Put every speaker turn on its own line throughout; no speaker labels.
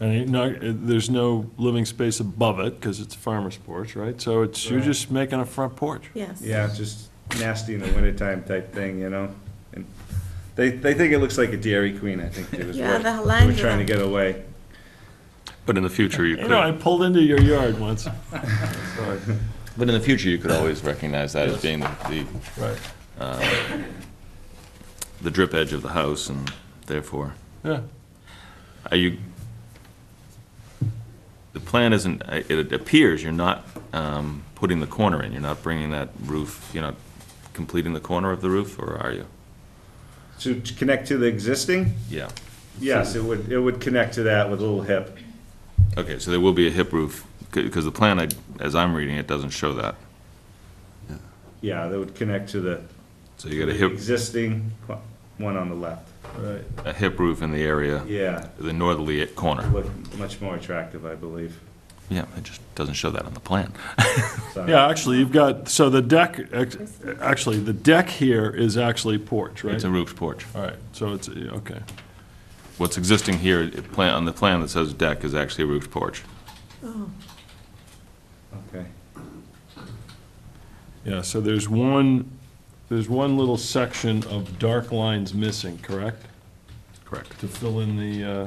And it- no, it- there's no living space above it, because it's a farmer's porch, right? So it's, you're
Right.
just making a front porch.
Yes.
Yeah, it's just nasty in the wintertime type thing, you know? And They, they think it looks like a Dairy Queen, I think, too, is
Yeah,
what
the
we're trying to
Hollandia.
get away.
But in the future, you
You know, I
could,
pulled into your yard once. Sorry.
but in the future, you could always recognize that as being the, the-
Right,
the drip edge of the house, and therefore,
yeah.
are you, the plan isn't, I- it appears you're not um, putting the corner in, you're not bringing that roof, you're not completing the corner of the roof, or are you?
To to connect to the existing,
Yeah.
yes, it would, it would connect to that with a little hip.
Okay, so there will be a hip roof, because the plan, I- as I'm reading it, doesn't show that.
Yeah, that would connect to the
So you got a hip,
existing qu- one on the left.
Right.
a hip roof in the area,
Yeah,
the northerly corner.
look much more attractive, I believe.
Yeah, it just doesn't show that on the plan.
So-
Yeah, actually, you've got, so the deck, ex- actually, the deck here is actually porch, right?
It's a roofed porch.
All right, so it's, yeah, okay.
What's existing here, it plan- on the plan that says deck, is actually a roofed porch.
Oh,
Okay,
Yeah, so there's one, there's one little section of dark lines missing, correct?
Correct.
To fill in the, uh,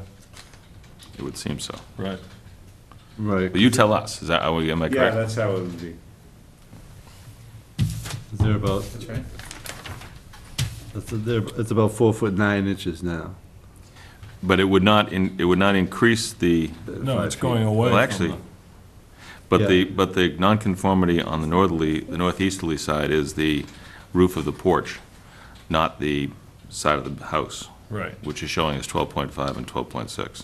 It would seem so.
right.
Right.
But you tell us, is that, how we- am I
yeah,
correct?
that's how it would be.
They're about,
That's right.
it's, they're, it's about four foot nine inches now.
But it would not, in- it would not increase the,
No, it's
Five feet.
going away.
well,
from
actually,
the-
but
Yeah.
the, but the nonconformity on the northerly, the northeasterly side is the roof of the porch, not the side of the house,
Right.
which is showing as 12.5 and 12.6.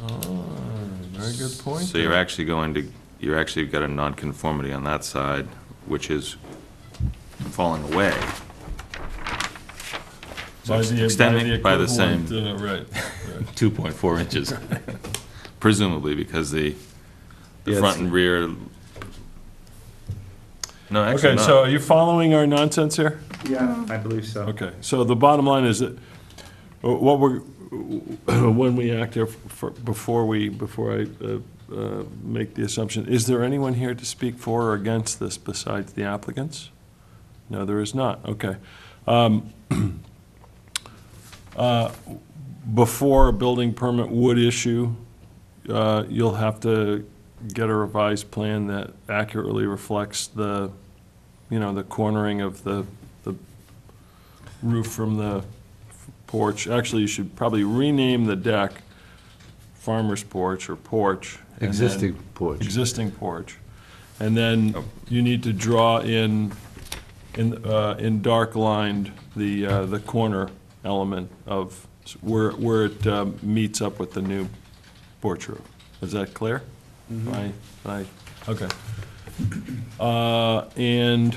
Very good point.
So you're actually going to, you're actually got a nonconformity on that side, which is falling away.
By the- by the
extending by the same-
equivalent, uh, Right, right.
2.4 inches, presumably because the, the
Yeah,
front
it's-
and rear, no, actually
Okay, so
not.
are you following our nonsense here?
Yeah, I believe so.
Okay, so the bottom line is that, uh, what we're, uh, when we act here, for- before we, before I uh, uh, make the assumption, is there anyone here to speak for or against this besides the applicants? No, there is not, okay. Um, uh, Before a building permit would issue, uh, you'll have to get a revised plan that accurately reflects the, you know, the cornering of the, the roof from the porch. Actually, you should probably rename the deck farmer's porch or porch. and then-
Existing porch.
Existing porch. And then you need to draw in, in, uh, in dark lined, the, uh, the corner element of where, where it um, meets up with the new porch roof. Is that clear? Right, right, okay. Uh, and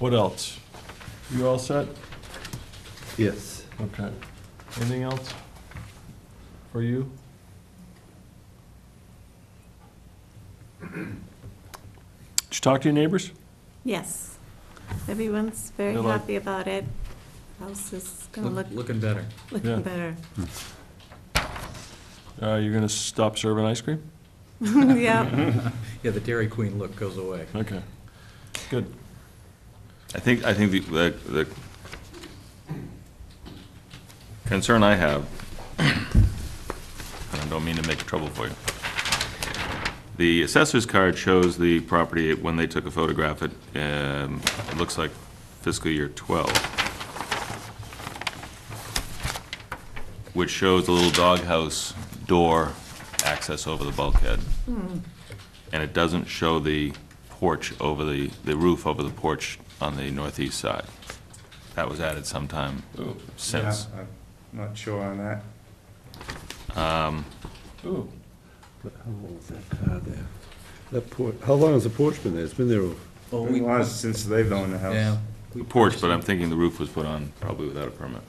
what else? You all set?
Yes.
Okay. Anything else for you? Did you talk to your neighbors?
yes. Everyone's very
They're like-
happy about it. House is gonna look,
Looking better.
Yeah.
looking better.
Uh, you're gonna stop serving ice cream?
Yeah,
Yeah, the Dairy Queen look goes away.
Okay. Good.
I think, I think the, the- the concern I have, and I don't mean to make trouble for you. The assessor's card shows the property when they took a photograph, it, um, it looks like fiscal year 12. Which shows the little doghouse door access over the bulkhead. And it doesn't show the porch over the, the roof over the porch on the northeast side. That was added sometime since.
Yeah, I'm Not sure on that.
Ooh.
But How old is that car there? That porch, how long has the porch been there? It's been there, a-
Oh,
It was since they've owned the house.
Yeah.
The porch, but I'm thinking the roof was put on probably without a permit.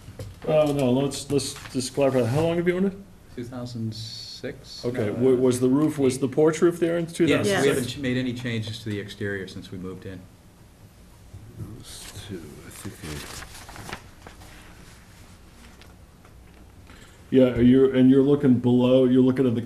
Oh, no, let's, let's just clarify. How long have you owned it?
2006?
Okay, wa- was the roof, was the porch roof there in two thousand
uh, Yes,
Yes.
we
six?
haven't ch- made any changes to the exterior since we moved in.
it's two, I think,
Yeah, you're, and you're looking below, you're looking at the